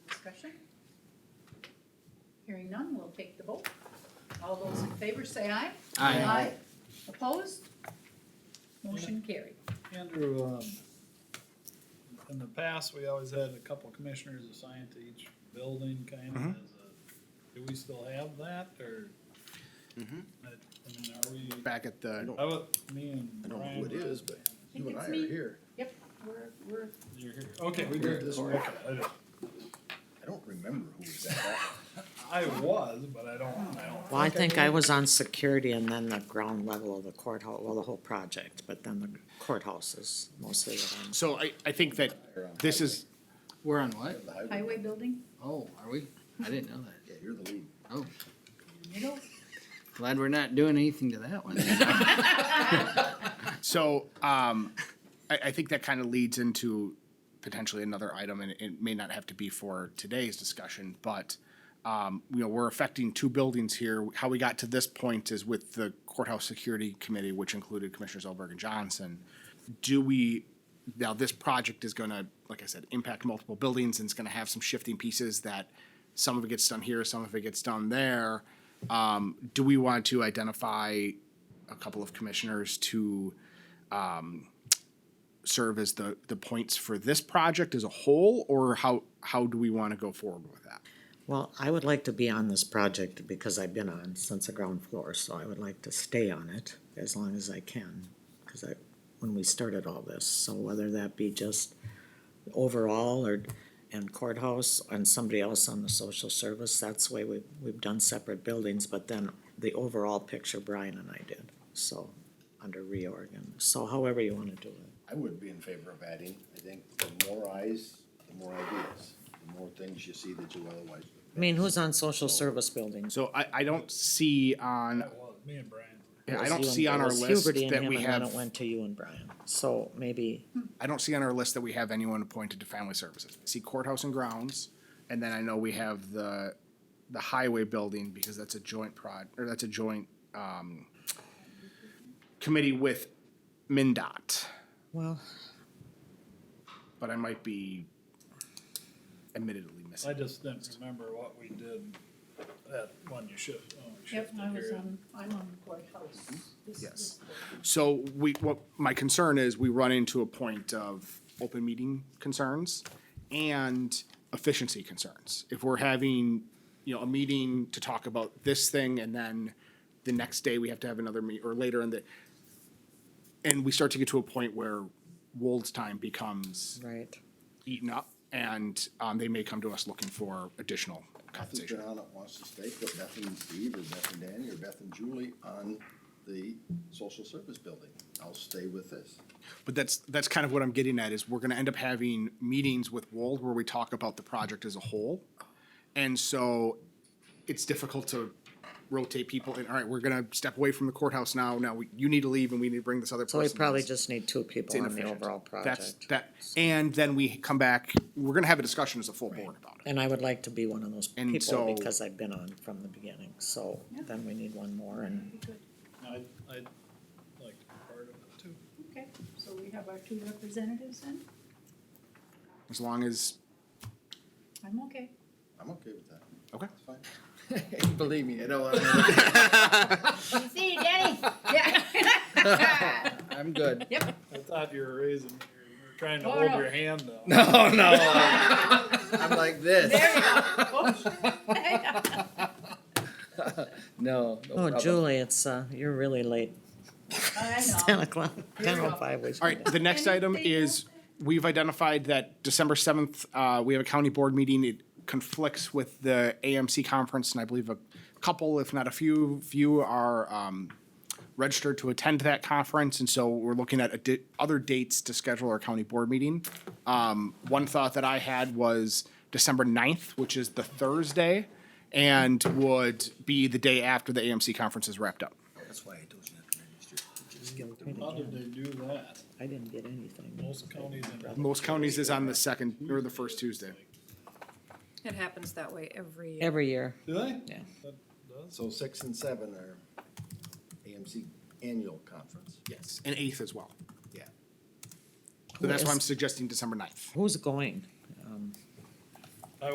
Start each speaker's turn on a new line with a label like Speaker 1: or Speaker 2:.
Speaker 1: discussion? Hearing none, we'll take the vote. All those in favor say aye.
Speaker 2: Aye.
Speaker 1: Opposed? Motion carried.
Speaker 3: Andrew, um, in the past, we always had a couple commissioners assigned to each building kind of as a, do we still have that or?
Speaker 4: Mm-hmm.
Speaker 3: I I mean, are we,
Speaker 2: Back at the,
Speaker 3: I would, me and
Speaker 4: I don't know
Speaker 3: Brian.
Speaker 4: who it
Speaker 3: were-
Speaker 4: is,
Speaker 1: I
Speaker 4: but
Speaker 1: think
Speaker 4: you and I
Speaker 1: it's
Speaker 4: are
Speaker 1: me.
Speaker 4: here.
Speaker 1: We're, we're,
Speaker 3: You're here, okay, we
Speaker 4: We're
Speaker 3: did this,
Speaker 4: recording.
Speaker 3: okay, I don't-
Speaker 4: I don't remember who was that.
Speaker 3: I was, but I don't, I don't.
Speaker 5: Well, I think I was on security and then the ground level of the courthouse, well, the whole project, but then the courthouse is mostly what I'm.
Speaker 2: so I, I think that this is,
Speaker 6: We're on what?
Speaker 4: You're the highway-
Speaker 1: highway building
Speaker 6: Oh, are we? I didn't know that.
Speaker 4: Yeah, you're the lead.
Speaker 1: in the middle.
Speaker 6: Glad we're not doing anything to that one.
Speaker 2: so, um, I, I think that kind of leads into potentially another item, and it may not have to be for today's discussion, but, um, you know, we're affecting two buildings here. How we got to this point is with the courthouse security committee, which included Commissioners Elberg and Johnson. Do we, now this project is gonna, like I said, impact multiple buildings and it's gonna have some shifting pieces that some of it gets done here, some of it gets done there. Um, do we want to identify a couple of commissioners to, um, serve as the, the points for this project as a whole, or how, how do we wanna go forward with that?
Speaker 5: Well, I would like to be on this project because I've been on since the ground floor, so I would like to stay on it as long as I can. Cause I, when we started all this, so whether that be just overall or, and courthouse and somebody else on the social service, that's the way we, we've done separate buildings, but then the overall picture Brian and I did, so, under reorgan, so however you wanna do it.
Speaker 4: I would be in favor of adding, I think, the more eyes, the more ideas, the more things you see that you otherwise.
Speaker 5: I mean, who's on social service buildings?
Speaker 2: So I, I don't see on,
Speaker 3: I was, me and Brian.
Speaker 2: yeah,
Speaker 5: It
Speaker 2: I
Speaker 5: was
Speaker 2: don't
Speaker 5: you and-
Speaker 2: see on
Speaker 5: it
Speaker 2: our
Speaker 5: was
Speaker 2: list
Speaker 5: Huberty and
Speaker 2: that
Speaker 5: him,
Speaker 2: we
Speaker 5: and then
Speaker 2: have,
Speaker 5: it Went to you and Brian, so maybe,
Speaker 2: I don't see on our list that we have anyone appointed to family services. I See courthouse and grounds, and then I know we have the, the highway building, because that's a joint prod, or that's a joint, um, committee with MinDOT,
Speaker 5: well,
Speaker 2: but I might be admittedly missing.
Speaker 3: I just didn't remember what we did that one you shift, oh, we
Speaker 1: Yep,
Speaker 3: shifted
Speaker 1: I was
Speaker 3: here.
Speaker 1: on, I'm on courthouse.
Speaker 4: Mm-hmm.
Speaker 1: This-
Speaker 2: Yes.
Speaker 1: this-
Speaker 2: So we, what, my concern is we run into a point of open meeting concerns and efficiency concerns. If we're having, you know, a meeting to talk about this thing and then the next day we have to have another meet or later in the, and we start to get to a point where Wold's time becomes
Speaker 5: right.
Speaker 2: eaten up and, um, they may come to us looking for additional
Speaker 4: Nothing
Speaker 2: compensation.
Speaker 4: John that wants to stay, put Beth and Steve or Beth and Danny or Beth and Julie on the social service building. I'll stay with this.
Speaker 2: But that's, that's kind of what I'm getting at is we're gonna end up having meetings with Wold where we talk about the project as a whole. And so it's difficult to rotate people and, all right, we're gonna step away from the courthouse now, now we- you need to leave and we need to bring this other
Speaker 5: So
Speaker 2: person.
Speaker 5: we probably
Speaker 2: in.
Speaker 5: just need two
Speaker 2: It's
Speaker 5: people on the
Speaker 2: inefficient.
Speaker 5: overall
Speaker 2: That's,
Speaker 5: project.
Speaker 2: that, and then we come back, we're gonna have a discussion as a full board about it.
Speaker 5: And I would like to be one of those
Speaker 2: And
Speaker 5: people
Speaker 2: so-
Speaker 5: because I've been on from the beginning, so
Speaker 1: Yeah.
Speaker 5: then we need one more and,
Speaker 3: I, I'd like to be part of it too.
Speaker 1: Okay, so we have our two representatives then?
Speaker 2: As long as,
Speaker 1: I'm okay.
Speaker 4: I'm okay with that.
Speaker 2: okay.
Speaker 4: That's fine.
Speaker 6: Believe me, I don't want
Speaker 1: See, Danny? Yeah.
Speaker 6: I'm good.
Speaker 1: Yep,
Speaker 3: I thought you were raising, you were trying to
Speaker 1: Oh,
Speaker 3: hold
Speaker 1: no.
Speaker 3: your hand though.
Speaker 6: No, no. I'm like
Speaker 1: there you
Speaker 6: this.
Speaker 1: go. Oh, sure.
Speaker 6: No, no
Speaker 5: oh
Speaker 6: problem.
Speaker 5: Julie, it's, uh, you're really late, it's
Speaker 1: I
Speaker 5: ten
Speaker 1: know.
Speaker 5: o'clock,
Speaker 1: Here we
Speaker 5: ten
Speaker 1: go.
Speaker 5: oh five.
Speaker 2: All right, the next item
Speaker 1: Anything
Speaker 2: is, we've identified that December seventh, uh, we have a county board meeting. It conflicts with the AMC conference, and I believe a couple, if not a few, few are, um, registered to attend that conference, and so we're looking at addi- other dates to schedule our county board meeting. Um, one thought that I had was December 9th, which is the Thursday, and would be the day after the AMC conference is wrapped up.
Speaker 4: That's why I told you not to register. Just get the
Speaker 3: How did they do that?
Speaker 5: I didn't get anything.
Speaker 3: Most counties in
Speaker 2: Most counties is on the second, or the first Tuesday.
Speaker 7: It happens that way every year.
Speaker 5: Every year,
Speaker 3: Do they?
Speaker 5: Yeah.
Speaker 3: That does.
Speaker 4: So six and seven are AMC annual conference.
Speaker 2: Yes, and eighth as well.
Speaker 4: Yeah.
Speaker 2: So that's why I'm
Speaker 5: Yes.
Speaker 2: suggesting December ninth.
Speaker 5: who's going? Um,